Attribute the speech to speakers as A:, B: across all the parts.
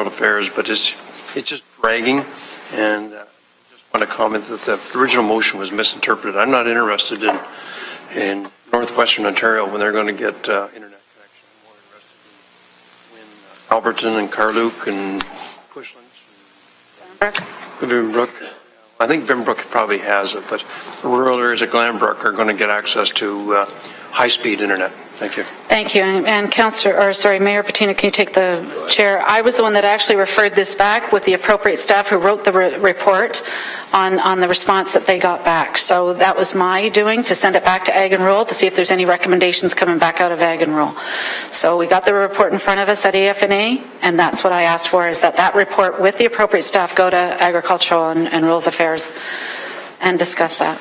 A: World Affairs, but it's, it's just bragging, and uh, I just want to comment that the original motion was misinterpreted. I'm not interested in, in northwestern Ontario when they're going to get uh, internet connection. I'm more interested in when uh, Alberton and Carluke and Cushlands and Bimbrook. I think Bimbrook probably has it, but rural areas of Glanbrook are going to get access to uh, high-speed internet. Thank you.
B: Thank you. And and Councillor, or sorry, Mayor Patino, can you take the chair? I was the one that actually referred this back with the appropriate staff who wrote the re- report on, on the response that they got back. So that was my doing, to send it back to Ag and Rural to see if there's any recommendations coming back out of Ag and Rural. So we got the report in front of us at AFNA, and that's what I asked for, is that that report with the appropriate staff go to Agricultural and and Rules Affairs and discuss that.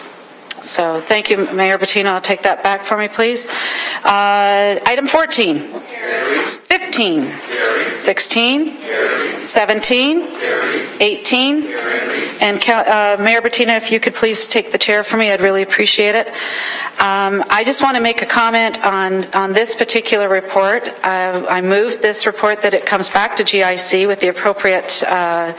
B: So thank you, Mayor Bettino. I'll take that back for me, please. Uh, Item 14. 15. 16. 17. 18. And Cal- uh, Mayor Bettina, if you could please take the chair for me, I'd really appreciate it. Um, I just want to make a comment on, on this particular report. Uh, I moved this report that it comes back to GIC with the appropriate uh,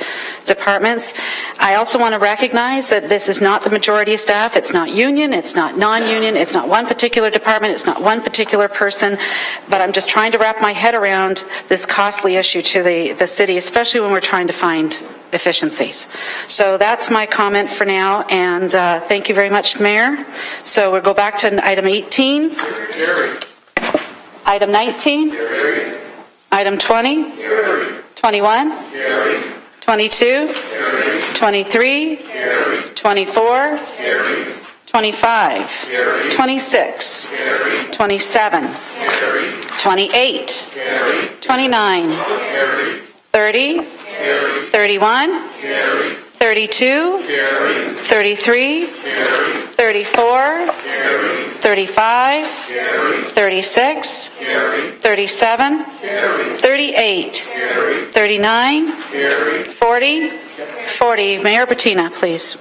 B: departments. I also want to recognize that this is not the majority of staff, it's not union, it's not non-union, it's not one particular department, it's not one particular person, but I'm just trying to wrap my head around this costly issue to the, the city, especially when we're trying to find efficiencies. So that's my comment for now, and uh, thank you very much, Mayor. So we'll go back to item 18. Item 19. Item 20. 21. 22. 23. 24. 25. 26. 27. 28. 29. 30. 31. 32. 33. 34. 35. 36. 37. 38. 39. 40. 40. Mayor Bettina, please.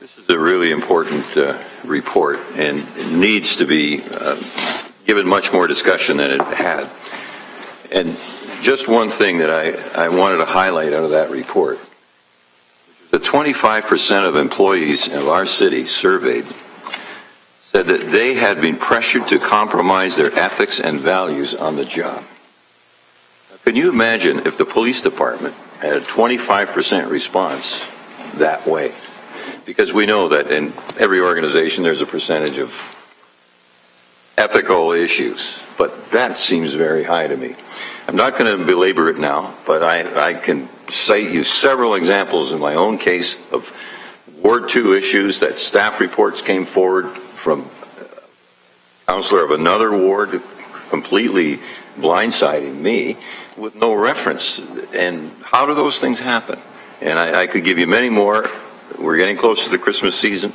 C: This is a really important uh, report and it needs to be uh, given much more discussion than it had. And just one thing that I, I wanted to highlight out of that report. The 25% of employees of our city surveyed said that they had been pressured to compromise their ethics and values on the job. Now, Can you imagine if the police department had a 25% response that way? because we know that in every organization there's a percentage of ethical issues, but that seems very high to me. I'm not going to belabor it now, but I, I can cite you several examples in my own case of Ward 2 issues that staff reports came forward from a counselor of another ward completely blindsiding me with no reference. And how do those things happen? And I, I could give you many more we're getting close to the Christmas season.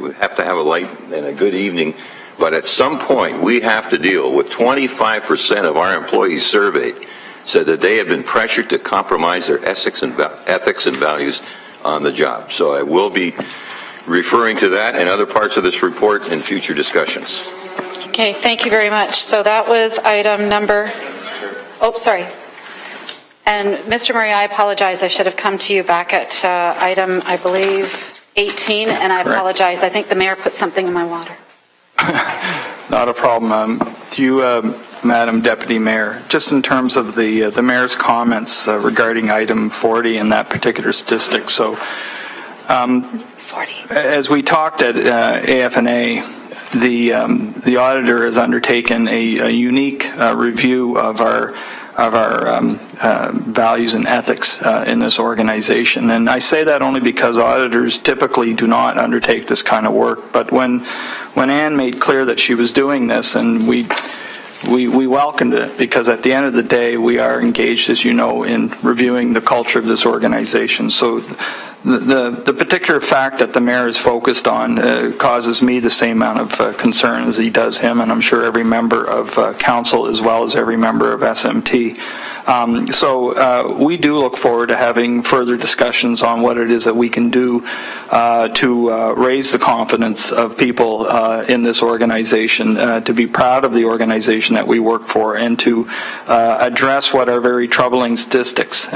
C: We have to have a light and a good evening. But at some point, we have to deal with 25% of our employees surveyed said that they have been pressured to compromise their ethics and, va- ethics and values on the job. So I will be referring to that and other parts of this report in future discussions.
B: Okay, thank you very much. So that was item number, oh, sorry. And Mr. Murray, I apologize, I should have come to you back at uh, item, I believe, 18, and I
D: Correct.
B: apologize, I think the mayor put something in my water.
D: Not a problem. Um, Do you, um, Madam Deputy Mayor, just in terms of the, uh, the mayor's comments uh, regarding item 40 in that particular statistic, so um,
B: 40.
D: as we talked at uh, AFNA, the um, the auditor has undertaken a, a unique uh, review of our of our um, uh, values and ethics uh, in this organization. And I say that only because auditors typically do not undertake this kind of work. But when when Anne made clear that she was doing this, and we we, we welcomed it because at the end of the day, we are engaged, as you know, in reviewing the culture of this organization. So the, the, the particular fact that the mayor is focused on uh, causes me the same amount of uh, concern as he does him, and I'm sure every member of uh, council as well as every member of SMT. Um, So uh, we do look forward to having further discussions on what it is that we can do uh, to uh, raise the confidence of people uh, in this organization, uh, to be proud of the organization that we work for, and to uh, address what are very troubling statistics.